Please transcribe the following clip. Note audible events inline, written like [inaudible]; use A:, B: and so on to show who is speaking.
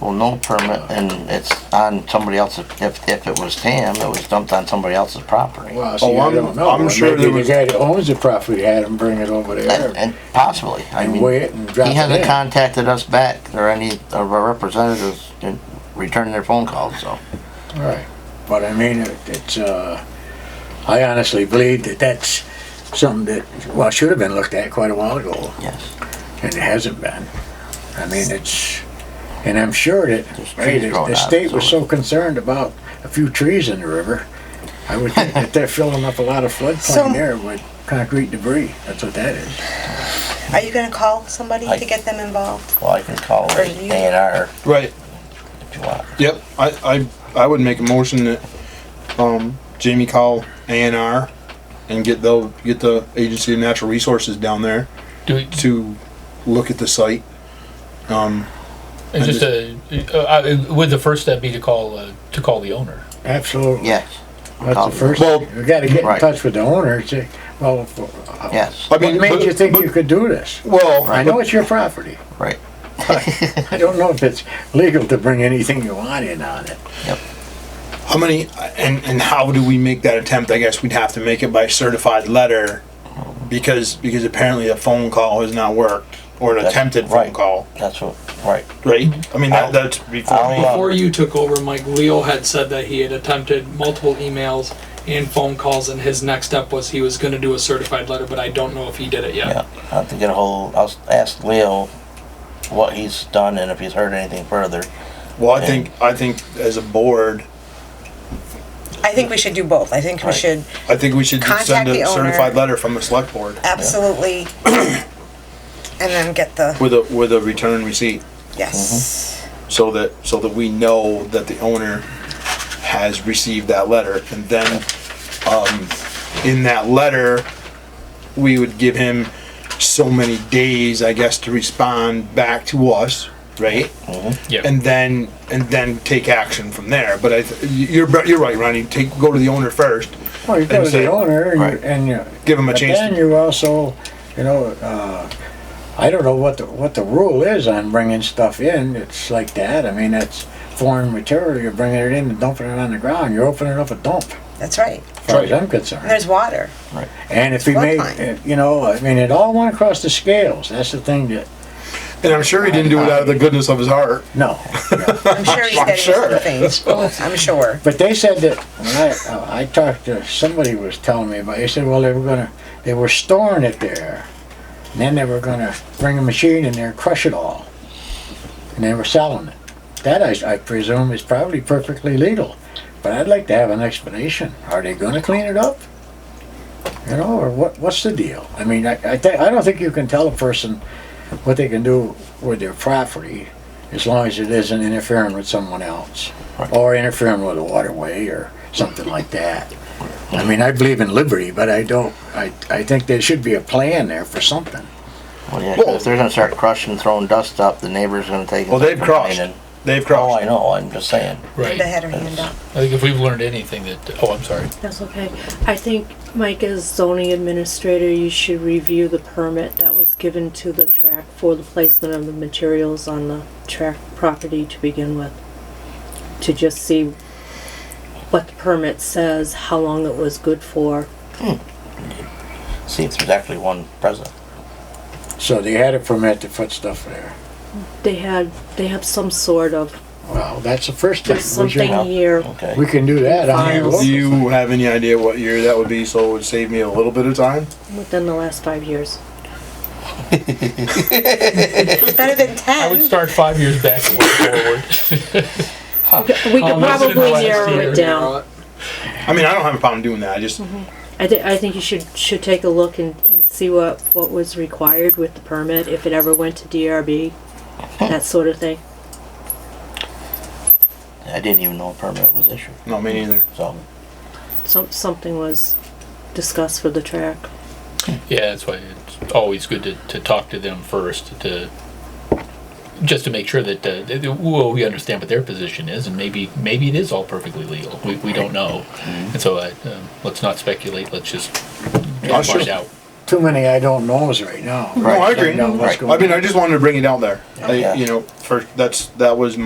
A: Well, no permit, and it's on somebody else's, if, if it was Tam, it was dumped on somebody else's property.
B: Well, see,
C: Oh,
B: I
C: I'm-
B: don't know.
C: I'm
B: Or
C: sure
B: Maybe
C: there
B: the
C: was-
B: guy that owns the property had him bring it over
A: And,
B: there
A: and possibly, I
B: and
A: mean,
B: weigh it and drop
A: he
B: it
A: hasn't
B: in.
A: contacted us back, or any of our representatives in- returning their phone calls, so.
B: Right. But I mean, it- it's, uh, I honestly believe that that's something that, well, should have been looked at quite a while ago,
A: Yes.
B: and it hasn't been. I mean, it's, and I'm sure that,
A: There's
B: hey,
A: trees
B: the
A: growing out
B: the
A: of
B: state
A: it,
B: was
A: so-
B: so concerned about a few trees in the river. I would think that they're filling up a lot of
D: So-
B: floodplain there with concrete debris. That's what that is.
D: Are you gonna call somebody
A: I-
D: to get them involved?
A: Well, I can call
D: Or
A: A
D: you-
A: and R
C: Right.
A: if you want.
C: Yep. I, I, I would make a motion that, um, Jamie call A and R and get the, get the Agency of Natural Resources down there
E: Do we,
C: to look at the site. Um,
E: it's just a, uh, uh, would the first step be to call, uh, to call the owner?
B: Absolutely.
A: Yes,
B: That's the first,
C: Well-
B: you gotta get in
A: Oh. Right.
B: touch with the owner and say, well, what
A: yes,
C: I mean,
B: made
C: but-
B: you think
C: but-
B: you could do this?
C: Well,
B: I know it's your property.
A: right. [laughs]
B: I don't know if it's legal to bring anything you want in on it.
C: How many and and how do we make that attempt? I guess we'd have to make it by certified letter, because because apparently a phone call has not worked or an
A: That's
C: attempted phone
A: right.
C: call,
A: That's what, right.
C: right?
B: Mm-hmm.
C: I mean
A: I'll-
C: that, that's before
A: I'll,
C: me.
A: uh,
F: Before you took over, Mike, Leo had said that he had attempted multiple emails and phone calls, and his next step was he was gonna do a certified letter, but I don't know if he did it
A: Yeah,
F: yet.
A: I'll have to get a hold, I'll s- ask Leo what he's done and if he's heard anything further.
C: Well, I think I think as a board,
D: I think we should do both. I think we
A: Right.
D: should
C: I think we should
D: Contact
C: send
D: the
C: a
D: owner.
C: certified letter from the select board
D: absolutely, and then get the,
C: with a with a return receipt,
D: yes.
C: so that so that we know that the owner has received that letter, and then um, in that letter, we would give him so many days, I guess, to respond back to us, right?
E: Yeah.
C: And then and then take action from there. But I, th- you're you're right, Ronnie. Take go to the owner first.
B: Well, you go
C: And
B: to the
C: say-
B: owner and
A: Right.
B: you- and you.
C: Give him a
B: but
C: chance to-
B: Then you also, you know, uh, I don't know what the, what the rule is on bringing stuff in. It's like that. I mean, that's foreign material. You're bringing it in and dumping it on the ground. You're opening up a dump, as
D: That's right.
B: far as I'm concerned.
D: And there's water.
B: And if we made,
D: Floodplain.
B: if- you know, I mean, it all went across the scales. That's the thing that,
C: And I'm sure he didn't do it out of the goodness of his heart.
B: no.
D: I'm sure he's
C: I'm
D: getting
C: sure.
D: some things. I'm sure.
B: But they said that, when I, uh, I talked to, somebody was telling me about, they said, well, they were gonna, they were storing it there. And then they were gonna bring a machine in there, and crush it all. And they were selling it. That I, s- I presume is probably perfectly legal. But I'd like to have an explanation. Are they gonna clean it up? You know, or what, what's the deal? I mean, I, I think, I don't think you can tell a person what they can do with their property as long as it isn't interfering with someone else or interfering with a waterway or something like that. I mean, I believe in liberty, but I don't, I, I think there should be a plan there for something.
A: Well, yeah, 'cause if they're gonna start crushing, throwing dust up, the neighbor's gonna take. it
C: Well, they've
A: from
C: crossed.
A: mine and-
C: They've crossed.
A: Oh, I know, I'm just saying.
E: Right.
D: Linda
E: I
D: had her hand up.
E: think if we've learned anything that, oh, I'm sorry.
G: That's okay. I think, Mike, as zoning administrator, you should review the permit that was given to the track for the placement of the materials on the track property to begin with. To just see what the permit says, how long it was good for.
A: See if there's actually one present.
B: So they had a permit to put stuff there.
G: They had, they have some sort of,
B: Well, that's the first thing.
G: there's
B: We should-
G: something here.
A: Okay.
B: We can do that on here.
G: Files.
C: Do you have any idea what year that would be? So it would save me a little bit of time.
G: within the last five years.
D: It was better than
E: I would
D: ten.
E: start five years back and work forward.
G: We could
E: Um, that's in the
G: probably
E: last
G: narrow
E: year.
G: it down.
C: I mean, I don't have a problem doing that. I just
G: I thi- I think you should, should take a look and, and see what, what was required with the permit, if it ever went to DRB, that sort of thing.
A: I didn't even know a permit was issued,
C: no, me neither.
A: so.
G: Some, something was discussed for the track.
E: [laughs] Yeah, that's why it's always good to, to talk to them first to just to make sure that uh, that- that, well we understand what their position is and maybe maybe it is all perfectly legal. We, we don't know, and so uh, um, let's not speculate. Let's just
C: Oh,
E: find
C: sure.
E: out.
B: Too many I don't knows right now.
C: No, I
B: Find
C: agree.
B: out what's
A: Right.
B: going
C: I mean,
B: on.
C: I just wanted to bring it out there. I,
A: Yeah.
C: you know, first that's that was my.